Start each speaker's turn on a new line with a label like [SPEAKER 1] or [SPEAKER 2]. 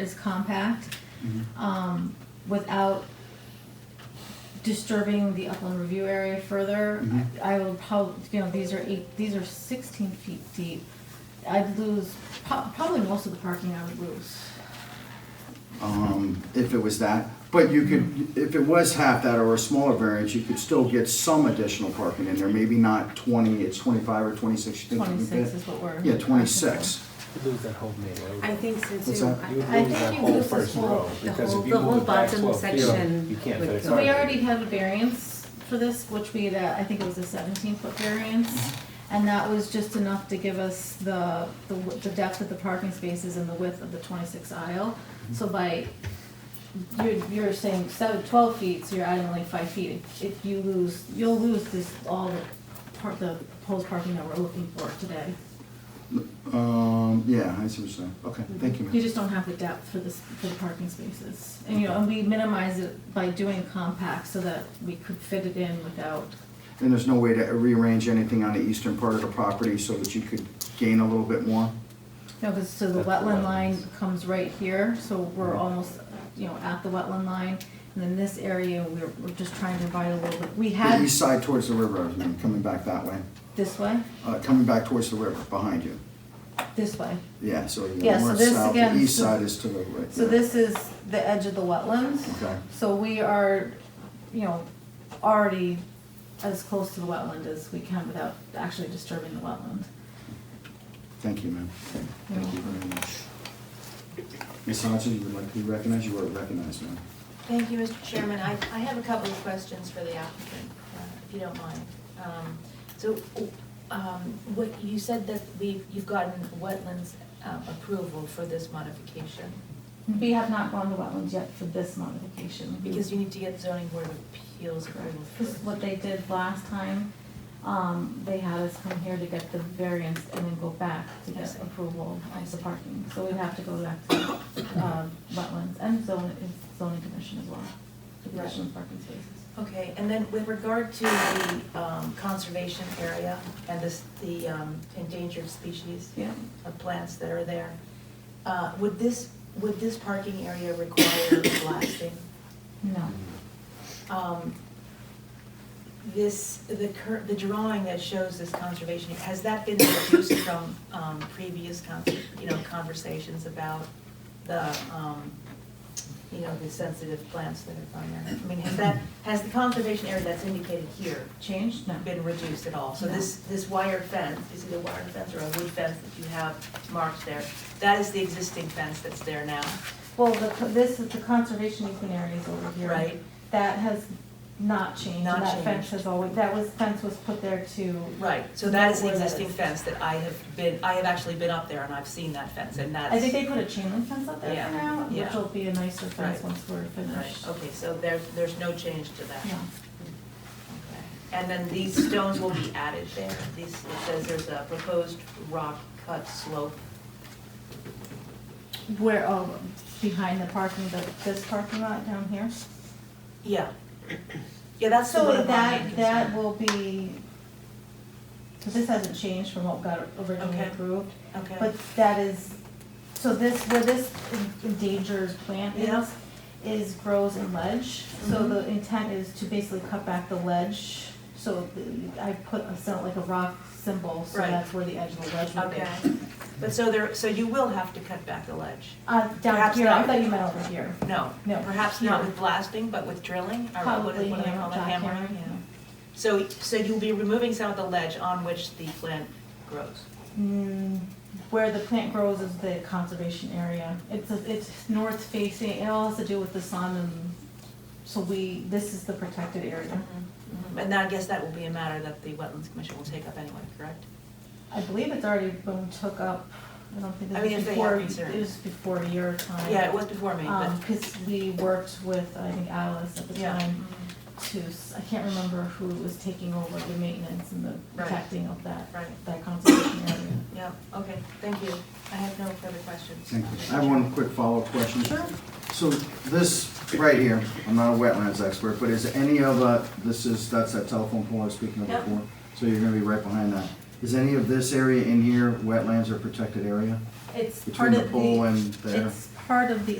[SPEAKER 1] is compact,
[SPEAKER 2] Mm-hmm.
[SPEAKER 1] um, without disturbing the upland review area further.
[SPEAKER 2] Mhm.
[SPEAKER 1] I I will probably, you know, these are eight, these are sixteen feet deep. I'd lose po- probably most of the parking I would lose.
[SPEAKER 2] um, if it was that. But you could, if it was half that or a smaller variance, you could still get some additional parking in there, maybe not twenty, it's twenty-five or twenty-six. you think you could
[SPEAKER 1] Twenty-six
[SPEAKER 2] get?
[SPEAKER 1] is what we're.
[SPEAKER 2] Yeah, twenty-six.
[SPEAKER 3] Lose that whole main road.
[SPEAKER 4] I think so
[SPEAKER 2] What's
[SPEAKER 4] too.
[SPEAKER 2] that?
[SPEAKER 4] I-
[SPEAKER 3] You would
[SPEAKER 1] I
[SPEAKER 3] lose
[SPEAKER 1] think
[SPEAKER 3] that
[SPEAKER 1] you
[SPEAKER 3] whole
[SPEAKER 1] lose this
[SPEAKER 3] first
[SPEAKER 1] whole-
[SPEAKER 3] row,
[SPEAKER 4] the
[SPEAKER 3] because
[SPEAKER 4] whole-
[SPEAKER 3] if you
[SPEAKER 4] the whole
[SPEAKER 3] move it back
[SPEAKER 4] bottom
[SPEAKER 3] twelve feet,
[SPEAKER 4] section
[SPEAKER 3] you can't
[SPEAKER 4] would
[SPEAKER 3] fit a
[SPEAKER 4] go.
[SPEAKER 1] So
[SPEAKER 3] car.
[SPEAKER 1] we
[SPEAKER 4] Sorry.
[SPEAKER 1] already had a variance for this, which we, had, uh, I think it was a seventeen foot variance. And that was just enough to give us the, the w- the depth of the parking spaces and the width of the twenty-six aisle. So by, you're, you're saying seven, twelve feet, so you're adding like five feet. If you lose, you'll lose this, all the part, the proposed parking that we're looking for today.
[SPEAKER 2] Um, yeah, I see what you're saying. Okay, thank you,
[SPEAKER 1] You
[SPEAKER 2] ma'am.
[SPEAKER 1] just don't have the depth for this, for the parking spaces. And, you know, and we minimize it by doing compact so that we could fit it in without
[SPEAKER 2] And there's no way to rearrange anything on the eastern part of the property so that you could gain a little bit more?
[SPEAKER 1] No, because so the
[SPEAKER 3] That's the
[SPEAKER 1] wetland line
[SPEAKER 3] wetlands.
[SPEAKER 1] comes right here, so we're almost, you know, at the wetland line. And then this area, we're, we're just trying to divide a little bit. We
[SPEAKER 2] The
[SPEAKER 1] had
[SPEAKER 2] east side towards the river, I mean, coming back that way,
[SPEAKER 1] this way,
[SPEAKER 2] uh, coming back towards the river, behind you.
[SPEAKER 1] this way.
[SPEAKER 2] Yeah, so you
[SPEAKER 1] Yeah,
[SPEAKER 2] know,
[SPEAKER 1] so
[SPEAKER 2] north,
[SPEAKER 1] this
[SPEAKER 2] south, the
[SPEAKER 1] again-
[SPEAKER 2] east side is to the right.
[SPEAKER 1] So
[SPEAKER 2] yeah.
[SPEAKER 1] this is the edge of the wetlands.
[SPEAKER 2] Okay.
[SPEAKER 1] So we are, you know, already as close to the wetland as we can without actually disturbing the wetland.
[SPEAKER 2] Thank you, ma'am.
[SPEAKER 1] You're
[SPEAKER 2] Thank you very much. Ms. Hodgson, you would like to be recognized? You are recognized, ma'am.
[SPEAKER 5] Thank you, Mr. Chairman. I, I have a couple of questions for the applicant, uh, if you don't mind. Um, So, um, what, you said that we, you've gotten wetlands um, approval for this modification,
[SPEAKER 1] We have not gone to wetlands yet for this modification.
[SPEAKER 5] because you need to get zoning board of appeals approval
[SPEAKER 1] This is
[SPEAKER 5] first.
[SPEAKER 1] what they did last time. Um, they had us come here to get the variance and then go back to
[SPEAKER 5] I
[SPEAKER 1] get
[SPEAKER 5] see.
[SPEAKER 1] approval
[SPEAKER 5] I
[SPEAKER 1] of the
[SPEAKER 5] see.
[SPEAKER 1] parking. So we'd have to go back to, um, wetlands and zone, zoning commission as well, the commission of parking spaces.
[SPEAKER 5] Okay, and then with regard to the um, conservation area and this, the um, endangered species
[SPEAKER 1] Yeah.
[SPEAKER 5] of plants that are there, uh, would this, would this parking area require blasting?
[SPEAKER 1] No.
[SPEAKER 5] um, This, the cur, the drawing that shows this conservation, has that been reduced from um, previous, con- you know, conversations about the, um, you know, the sensitive plants that are on there? I mean, has that, has the conservation area that's indicated here
[SPEAKER 1] Changed? No.
[SPEAKER 5] been reduced at all? So
[SPEAKER 1] No.
[SPEAKER 5] this, this wire fence, is it a wire fence or a wood fence that you have marked there? That is the existing fence that's there now,
[SPEAKER 1] Well, the, co- this is the conservation easement area is over here.
[SPEAKER 5] right?
[SPEAKER 1] That has not changed.
[SPEAKER 5] Not
[SPEAKER 1] That fence
[SPEAKER 5] changed.
[SPEAKER 1] has always, that was, fence was put there to,
[SPEAKER 5] Right, so that is the
[SPEAKER 1] Where that
[SPEAKER 5] existing
[SPEAKER 1] is.
[SPEAKER 5] fence that I have been, I have actually been up there and I've seen that fence and that's.
[SPEAKER 1] I think they put a chain link fence up there
[SPEAKER 5] Yeah,
[SPEAKER 1] for now, which
[SPEAKER 5] yeah.
[SPEAKER 1] will be a nicer fence
[SPEAKER 5] Right.
[SPEAKER 1] once we're
[SPEAKER 5] Right,
[SPEAKER 1] finished.
[SPEAKER 5] okay, so there's, there's no change to that.
[SPEAKER 1] Yeah.
[SPEAKER 5] Okay. And then these stones will be added there. These, it says there's a proposed rock cut slope.
[SPEAKER 1] Where, oh, behind the parking, the, this parking lot down here?
[SPEAKER 5] Yeah. Yeah, that's the
[SPEAKER 1] So
[SPEAKER 5] one of my
[SPEAKER 1] that,
[SPEAKER 5] main
[SPEAKER 1] that
[SPEAKER 5] concern.
[SPEAKER 1] will be, so this hasn't changed from what got originally
[SPEAKER 5] Okay.
[SPEAKER 1] approved,
[SPEAKER 5] Okay,
[SPEAKER 1] but that is, so this, where this endangered plant
[SPEAKER 5] Yeah.
[SPEAKER 1] is, is grows in ledge, so
[SPEAKER 5] Mhm.
[SPEAKER 1] the intent is to basically cut back the ledge, so the- I put a, sort of like a rock symbol, so
[SPEAKER 5] Right.
[SPEAKER 1] that's where the edge of the ledge would be.
[SPEAKER 5] okay. But so there, so you will have to cut back the ledge?
[SPEAKER 1] Uh, down
[SPEAKER 5] Perhaps
[SPEAKER 1] here, I
[SPEAKER 5] not.
[SPEAKER 1] thought you meant over here.
[SPEAKER 5] No.
[SPEAKER 1] No,
[SPEAKER 5] Perhaps not
[SPEAKER 1] here.
[SPEAKER 5] with blasting, but with drilling, or what- what do
[SPEAKER 1] Probably uh,
[SPEAKER 5] they call it,
[SPEAKER 1] hammer, jackhammer,
[SPEAKER 5] hammering?
[SPEAKER 1] yeah.
[SPEAKER 5] So, so you'll be removing some of the ledge on which the plant grows?
[SPEAKER 1] Mm, where the plant grows is the conservation area. It's, a- it's north facing, it all has to do with the sun and, so we, this is the protected area.
[SPEAKER 5] Mhm. And I guess that will be a matter that the Wetlands Commission will take up anyway, correct?
[SPEAKER 1] I believe it's already been took up, I don't think
[SPEAKER 5] I
[SPEAKER 1] this
[SPEAKER 5] mean,
[SPEAKER 1] was
[SPEAKER 5] if they
[SPEAKER 1] before,
[SPEAKER 5] have
[SPEAKER 1] it
[SPEAKER 5] concern.
[SPEAKER 1] was before your time.
[SPEAKER 5] Yeah, it was before me, but.
[SPEAKER 1] Um, cause we worked with, I think Alice at the
[SPEAKER 5] Yeah. Mm-hmm.
[SPEAKER 1] time to, s- I can't remember who was taking over the maintenance and the
[SPEAKER 5] Right.
[SPEAKER 1] protecting of that,
[SPEAKER 5] Right,
[SPEAKER 1] that conservation area.
[SPEAKER 5] yeah, okay, thank you. I have no further questions.
[SPEAKER 2] Thank you. I have one quick follow-up question. So this right here, I'm not a wetlands expert, but is any of, uh, this is, that's that telephone pole I was speaking of
[SPEAKER 5] Yep.
[SPEAKER 2] before? So you're gonna be right behind that. Is any of this area in here wetlands or protected area?
[SPEAKER 1] It's
[SPEAKER 2] Between
[SPEAKER 1] part
[SPEAKER 2] the
[SPEAKER 1] of
[SPEAKER 2] pole
[SPEAKER 1] the,
[SPEAKER 2] and there?
[SPEAKER 1] it's part of the